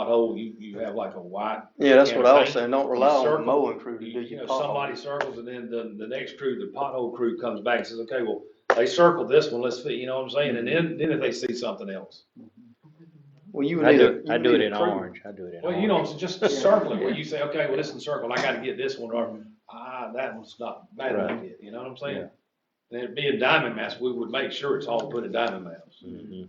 hole, you, you have like a wide. Yeah, that's what I was campaign. saying, don't rely on the Circle. mowing crew to do You you know, your pothole. somebody circles and then the, the next crew, the pothole crew comes back and says, okay, well, they circled this one, let's, fi-" you know what I'm saying? And then, then if they see something else. Well, you I need do, a. it- I you do it need a in crew. orange, I do it in orange. Well, you know, it's just Yeah. circling where you say, okay, well, this is circled, I gotta get this one, or, ah, that one's not bad, I Right. did," you know what I'm saying? And it being diamond maps, we would make sure it's all put in diamond maps. Mhm.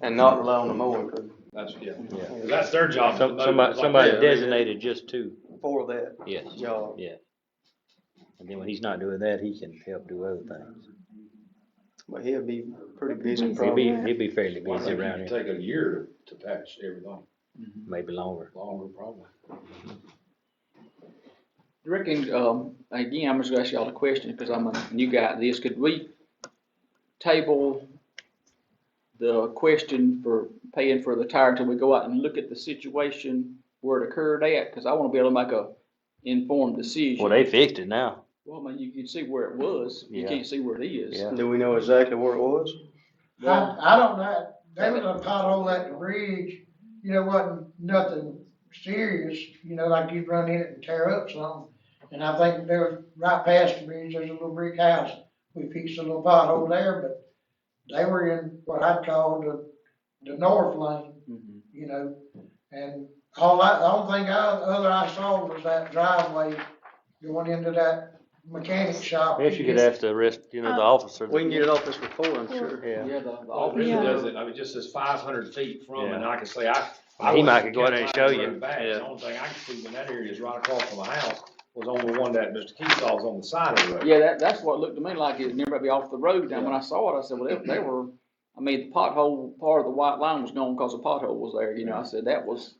And not rely on the mowing crew That's, yeah, 'Cause Yeah. that's their job. Mm-hmm. Some- Somebody, Yeah. somebody designated just two, for that yes. job. Yeah. And then when he's not doing that, he can help do other things. But he'll be pretty busy He'll be, probably. he'll be fairly Why busy don't around you here, take a year to patch everything, maybe longer. longer probably. Reckon, um, again, I'm just gonna ask y'all a question, cause I'm a new guy at this, could we table the question for paying for the tire until we go out and look at the situation where it occurred at, cause I wanna be able to make a informed decision. Well, they fixed it now. Well, I mean, you can see where it was, you Yeah. can't see where it is. Yeah. Do we know exactly where it was? I, I don't know, there was a pothole at the ridge, you know, wasn't nothing serious, you know, like you'd run in it and tear up something. And I think there was, right past the bridge, there's a little brick house, we fixed a little pothole there, but they were in what I'd call the, the north lane, Mhm. you know? And all I, the only thing I, other I saw was that driveway going into that mechanic shop. I guess you could ask the rest, you know, the officer. Uh, We can get it off this report, I'm sure. Yeah. Yeah, the, the Well, it really officer, Yeah. doesn't, I mean, just says five hundred feet from, and I can say, I. I Yeah. He might wouldn't could go out there and count show my you. road back. Yeah. The only thing I can see when that area is right across from my house was on the one that Mr. Keesaw was on the side of the road. yeah, that, that's what it looked to me like, it never be off the road, and when I saw it, I said, well, they, they were, I mean, the pothole, part of the white line was gone because the pothole was there, you know, I said, that was,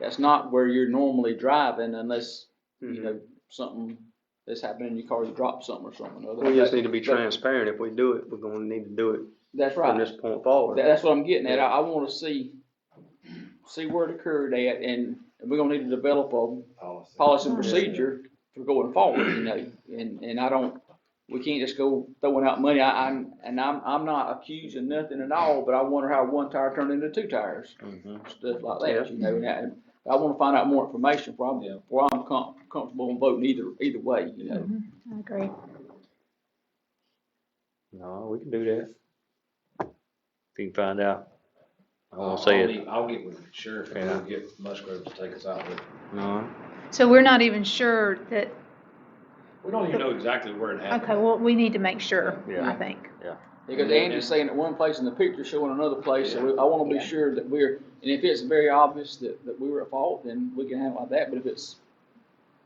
that's not where you're normally driving unless, Mm-hmm. you Mm-hmm. know, something that's happening in your car, you drop something or something or other. We just need to be But- transparent. If we do it, we're gonna need to do it That's from right, this point That- forward. that's what I'm getting at, I, I wanna see, see where it occurred at, and we're gonna need to develop a Policy. policy and procedure for going forward, you know, and, and I don't, we can't just go throwing out money, I, I'm, and I'm, I'm not accusing nothing at all, but I wonder how one tire turned into two tires, Mhm. stuff like that, you know, and I, I wanna find out more information before I'm, Yeah. before I'm com- comfortable in voting either, either way, you know. I agree. No, we can do that. If you can find out. I I'll, won't say I'll it. get- I'll get with the sheriff and Yeah. we'll get Musgrove to take us out with. it. No. So we're not even sure that, We don't even know exactly where it happened. okay, well, we need to make sure, I Yeah. think. Because Yeah. Andy's saying that one place in the picture showing another place, so we- I wanna Yeah. be sure that we're, and if it's very obvious that, that we were at fault, then we can handle it like that, but if it's,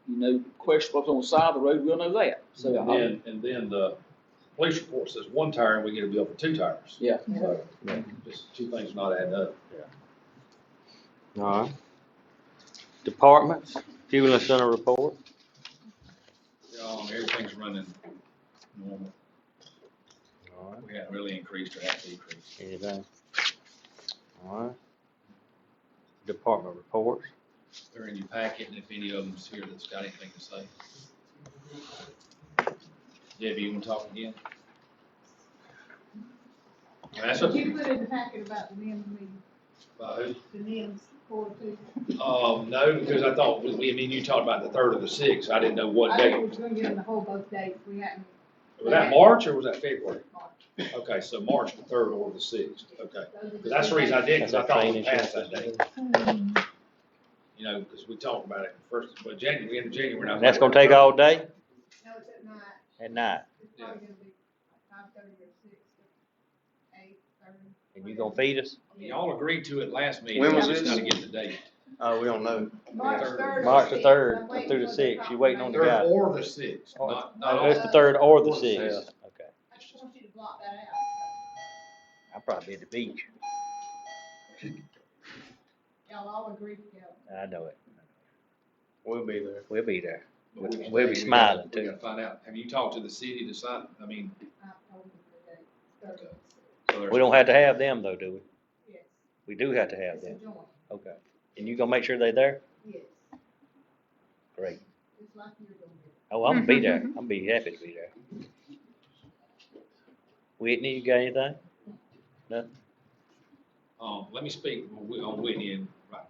you know, questionable on the side of the road, we'll know that, so. And I- then, and then the police report says one tire and we get a bill for two tires. Yeah. So, Yeah. just two things not adding up. Alright. Departments, fuel and center report. Um, everything's running normal. Alright. We haven't really increased or had decreased. Anything? Alright. Department reports. They're in your packet, and if any of them's here that's got anything to say. Debbie, you wanna talk again? That's up to You you. put in the packet about the NIMS meeting, About Uh, who? the NIMS four two. Um, no, because I thought, we, we- I mean, you talked about the third of the sixth, I didn't know what I day. thought we was gonna get in the whole both days, we hadn't. Was that March or was that February? marked. Okay, so March the third or the sixth, okay. Those are hmm, 'Cause that's the reason I did, because I That's our thought we training passed that session. day, you know, because we talked about it first, but January, we end of January. and I was And that's like, gonna take all day No, it's at night, and night. it's probably gonna be five thirty or six, eight thirty. And you gonna feed us? Y'all agreed to it last meeting. When was I just this? gotta get the date. Uh, we don't know. March third. March the or 3rd, 6th. I'm through the waiting for 6th. You waiting on the confirmation. guy. Third or the sixth, Oh, not, not No, all. It's the third or the Or the sixth. Okay. I just want you to block that out. I'll probably be at the beach. Y'all all agree together. I know it. We'll be there. We'll be there. But we- We'll be smiling, We too. gotta find out, have you talked to the city to sign, I mean, I told them the date, third or sixth, so there's. We don't have to have them though, do we? yes, We do have to have it's a them. joint, Okay. And you gonna make sure they there? yes, Great. it's like you're doing it. Oh, I'm gonna be there. I'm gonna be happy to be there. Whitney, you got anything? Um, let me speak on Whitney and